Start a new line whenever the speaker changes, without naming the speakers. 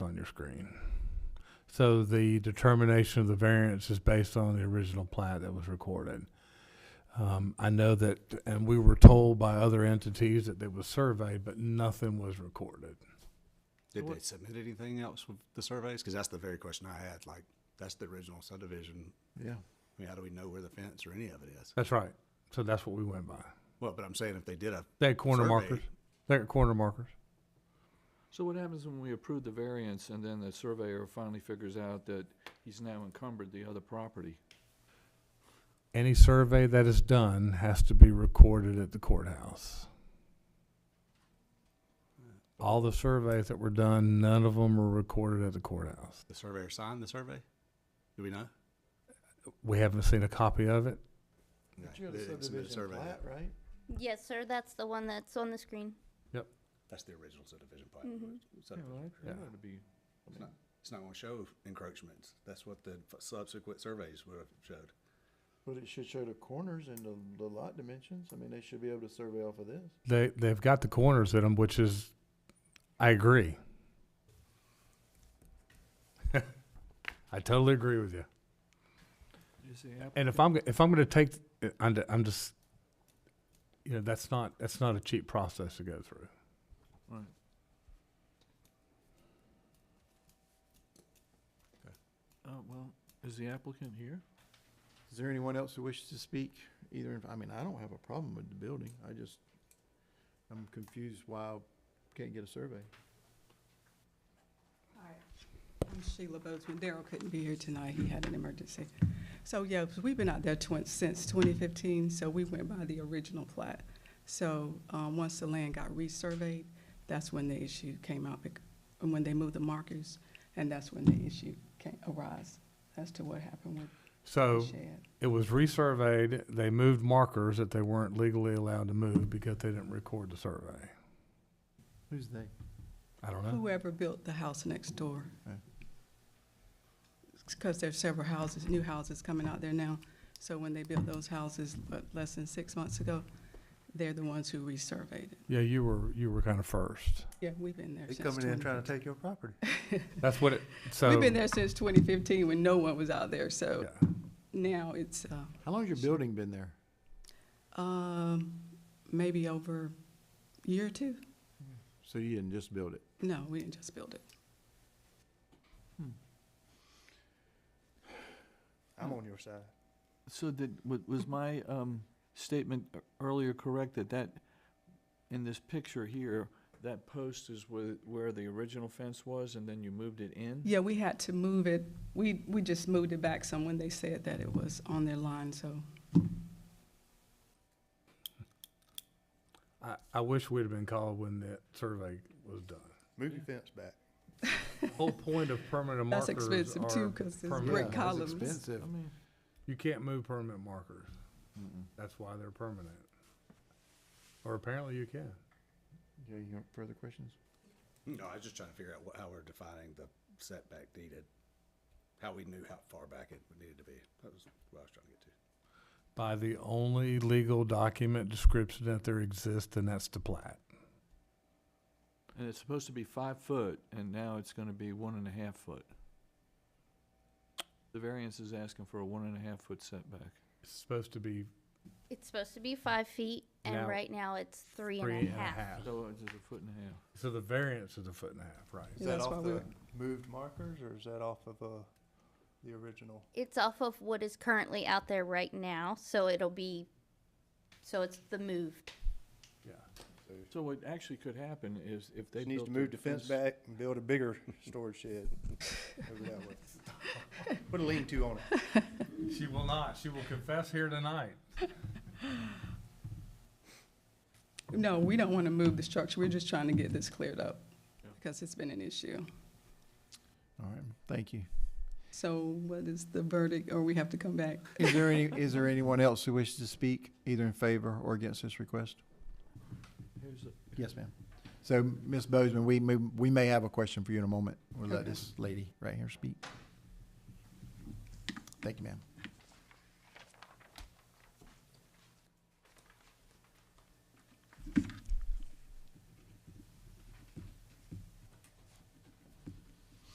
your screen.
So the determination of the variance is based on the original plat that was recorded. Um, I know that, and we were told by other entities that they was surveyed, but nothing was recorded.
Did they submit anything else with the surveys? Because that's the very question I had, like, that's the original subdivision.
Yeah.
I mean, how do we know where the fence or any of it is?
That's right. So that's what we went by.
Well, but I'm saying if they did a,
They had corner
Survey.
markers. They had corner markers.
So what happens when we approve the variance and then the surveyor finally figures out that he's now encumbered the other property?
Any survey that is done has to be recorded at the courthouse. All the surveys that were done, none of them were recorded at the courthouse.
the surveyor signed the survey? Do we know?
We haven't seen a copy of it.
Okay,
But you have
they
a
didn't submit a
subdivision
survey
plat,
yet.
right?
Yes, sir, that's the one that's on the screen.
That's the original subdivision plat.
Mm-hmm.
Mhm.
Subdivision.
Yeah.
That would be-
It's not- It's not gonna show encroachments. That's what the f- subsequent surveys would have showed.
But it should show the corners and the, the lot dimensions. I mean, they should be able to survey off of this.
They, they've got the corners in them, which is, I agree. I totally agree with you.
Is the app-
And if I'm, if I'm gonna take, I'm, I'm just, you know, that's not, that's not a cheap process to go through.
right. Uh, well, is the applicant here?
Is there anyone else who wishes to speak? Either, in- I mean, I don't have a problem with the building. I just, I'm confused why I can't get a survey.
Hi, I'm Sheila Bozeman. Daryl couldn't be here tonight. He had an emergency. So, yeah, 'cause we've been out there twen- since 2015, so we went by the original plat. So, um, once the land got resurveyed, that's when the issue came out, bec- and when they moved the markers, and that's when the issue came, arose as to what happened with the
So
shed.
it was resurveyed, they moved markers that they weren't legally allowed to move because they didn't record the survey.
Who's they?
I don't know.
Whoever built the house next door.
Right.
Because there's several houses, new houses coming out there now. So when they built those houses, what, less than six months ago, they're the ones who resurveyed it.
Yeah, you were, you were kind of first.
Yeah, we've been there since.
to take your property.
That's what it,
20
so.
We've been there since twenty fifteen when no one was out there, so
yeah.
now it's, uh,
How long's your building been there?
um, maybe over a year or two?
So you didn't just build it?
No, we didn't just build it.
I'm on your side.
So did, wa- was my um, statement e- earlier correct that that, in this picture here, that post is where, where the original fence was and then you moved it in?
Yeah, we had to move it, we, we just moved it back some when they said that it was on their line, so.
I, I wish we'd have been called when that survey was done.
Move your fence back.
The Whole point of permanent markers
That's expensive too,
are
'cause it's
permanent.
Brick
Yeah, it's
columns.
expensive.
I mean,
You can't move permanent markers. That's why they're permanent. Or apparently you can.
Yeah, you have further questions?
No, I was just trying to figure out wha- how we're defining the setback needed, how we knew how far back it needed to be. That was what I was trying to get to.
By the only legal document description that there exists, and that's the plat.
And it's supposed to be five foot, and now it's gonna be one and a half foot. The variance is asking for a one and a half foot setback.
It's supposed to be
It's supposed to be five feet,
Now-
and right now it's three
three
and a half.
So it's a foot and a half.
So the variance is a foot and a half, right?
Yeah,
Is that
that's why
off
we
the
were-
moved markers or is that off of, uh, the original?
It's off of what is currently out there right now, so it'll be, so it's the moved.
Yeah.
So what actually could happen is if they
Just needs
built
to
their
move the fence back and build a bigger storage shed over that way. Put a lean-to on it.
She will not. She will confess here tonight.
No, we don't want to move the structure. We're just trying to get this cleared up because it's been an issue.
All right, thank you.
So what is the verdict, or we have to come back?
Is there any, is there anyone else who wishes to speak either in favor or against this request?
Here's a-
Yes, ma'am. So, Ms. Bozeman, we may, we may have a question for you in a moment. We'll let this lady right here speak. Thank you, ma'am.